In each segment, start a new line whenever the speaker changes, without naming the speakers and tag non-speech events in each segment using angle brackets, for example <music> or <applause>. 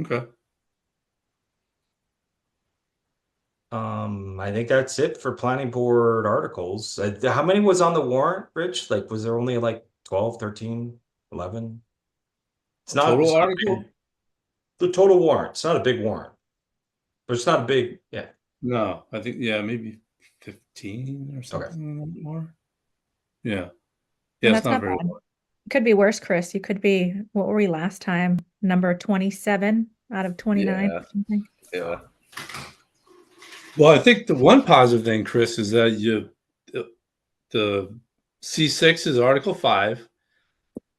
Okay.
Um, I think that's it for planning board articles. Uh, th- How many was on the warrant, Rich? Like, was there only like 12, 13, 11? It's not. it's
Total
not a
article?
big- The total warrant. It's not a big warrant. But it's not a big, yeah.
No, I think yeah, maybe fifteen or something more. Yeah, yeah,
that's
it's not
not
very.
bad.
long.
Could be worse, Chris. You could be, what were we last time? Number 27 out of 29
Yeah.
or something.
Yeah. Well, I think the one positive thing, Chris, is that you the, the C six is Article five.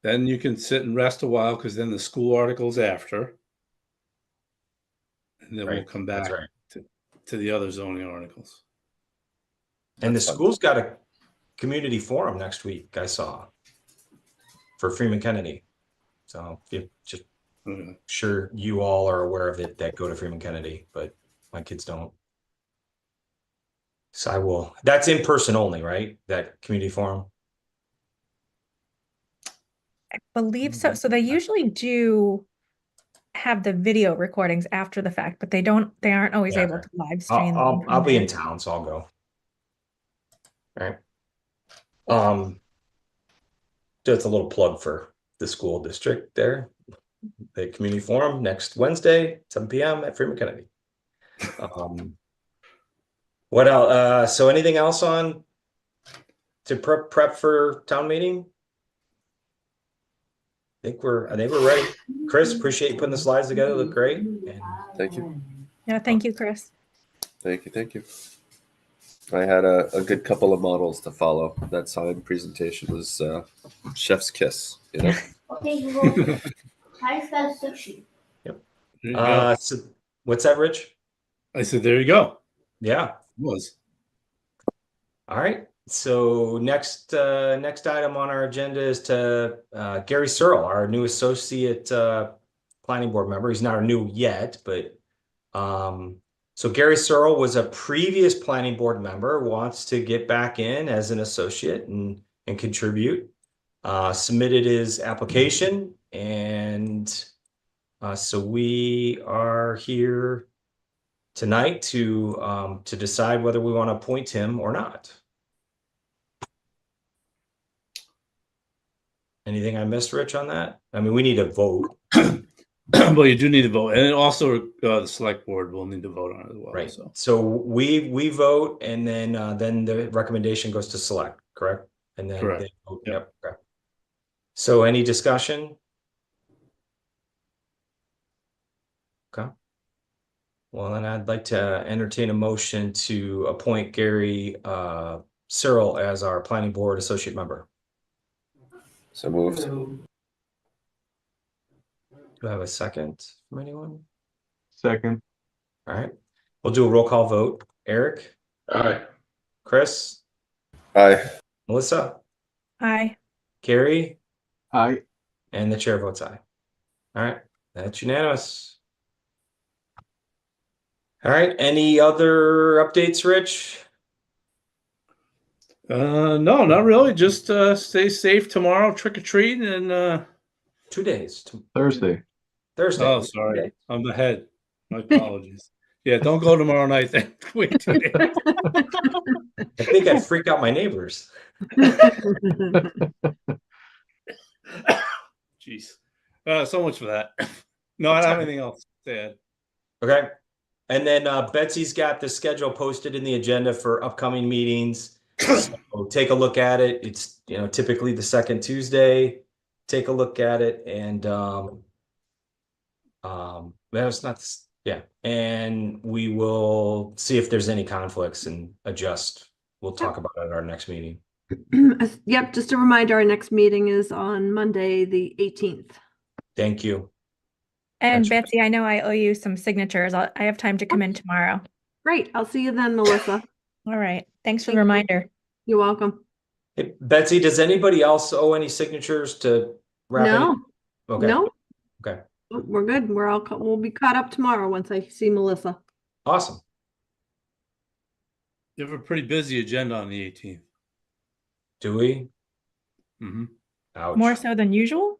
Then you can sit and rest a while because then the school article's after. And then we'll
Right,
come
That's
back
right.
to the other zoning articles.
And the
That's fun.
school's got a community forum next week, I saw. For Freeman Kennedy. So if you just
Okay.
sure you all are aware of it that go to Freeman Kennedy, but my kids don't. So I will. That's in person only, right? That community forum.
Believe
Mm-hmm.
so. So they usually do have the video recordings after the fact, but they don't, they aren't always
Yeah.
able to live stream.
I'll, I'll, Uh,
them from
um, I'll be
there.
in town, so I'll go. All right. Um, just a little plug for the school district there. The community forum next Wednesday, seven PM at Freeman Kennedy. Um, what else? Uh, so anything else on to prep prep for town meeting? I think we're, I think we're ready. Chris, appreciate you putting the slides together. Look great. And
Thank you.
Yeah, thank you, Chris.
Thank you. Thank you. I had a, a good couple of models to follow. That sign presentation was uh, chef's kiss. You know,
Okay, Google. How to spell sushi?
There you go.
Uh, so, what's that, Rich?
I said, there you go.
Yeah.
Was
All right. So next, uh, next item on our agenda is to, uh, Gary Searle, our new associate, uh, planning board member. He's not new yet, but, um, so Gary Searle was a previous planning board member, wants to get back in as an associate and, and contribute. Uh, submitted his application and, uh, so we are here tonight to um to decide whether we want to appoint him or not. Anything I missed, Rich, on that? I mean, we need a vote,
well, you do need to vote, and also uh, the select board will need to vote on it as well.
right?
So
So we we vote and then uh then the recommendation goes to select, correct? And then
Correct.
they vote.
Yep.
Yep. correct. So any discussion? Okay. Well, then I'd like to entertain a motion to appoint Gary uh Searle as our planning board associate member.
so moved.
Do I have a second from anyone?
Second.
All right, we'll do a roll call vote. Eric,
Aye.
Chris,
Aye.
Melissa,
Hi.
Gary,
Aye.
And the chair votes aye. All right, that's unanimous. All right, any other updates, Rich?
uh, no, not really. Just uh, stay safe tomorrow, trick or treat, and uh,
Two days, t-
Thursday.
Thursday.
oh, sorry,
Okay.
I'm ahead. My apologies. yeah, don't go tomorrow night. Then <laughs> wait two days.
I think I freaked out my neighbors.
Jeez, uh, so much for that. <laughs> No, I don't have anything else to add.
Okay. And then uh, Betsy's got the schedule posted in the agenda for upcoming meetings. So Take a look at it. It's, you know, typically the second Tuesday. Take a look at it and um um, that was not, s- yeah, and we will see if there's any conflicts and adjust. We'll talk about it at our next meeting.
<clears throat> As- Yep, just a reminder, our next meeting is on Monday, the 18th.
Thank you.
And
Gotcha.
Betsy, I know I owe you some signatures. I'll, I have time to come in tomorrow.
Great, I'll see you then, Melissa.
All right. Thanks for
Thank
the
you.
reminder.
You're welcome.
Hey, Betsy, does anybody else owe any signatures to wrap? any-
No,
Okay.
no.
Okay.
Oh, We're good. We're all, ca- we'll be caught up tomorrow once I see Melissa.
Awesome.
You have a pretty busy agenda on the 18th.
Do we?
Mm-hmm.
Ouch.
More so than usual?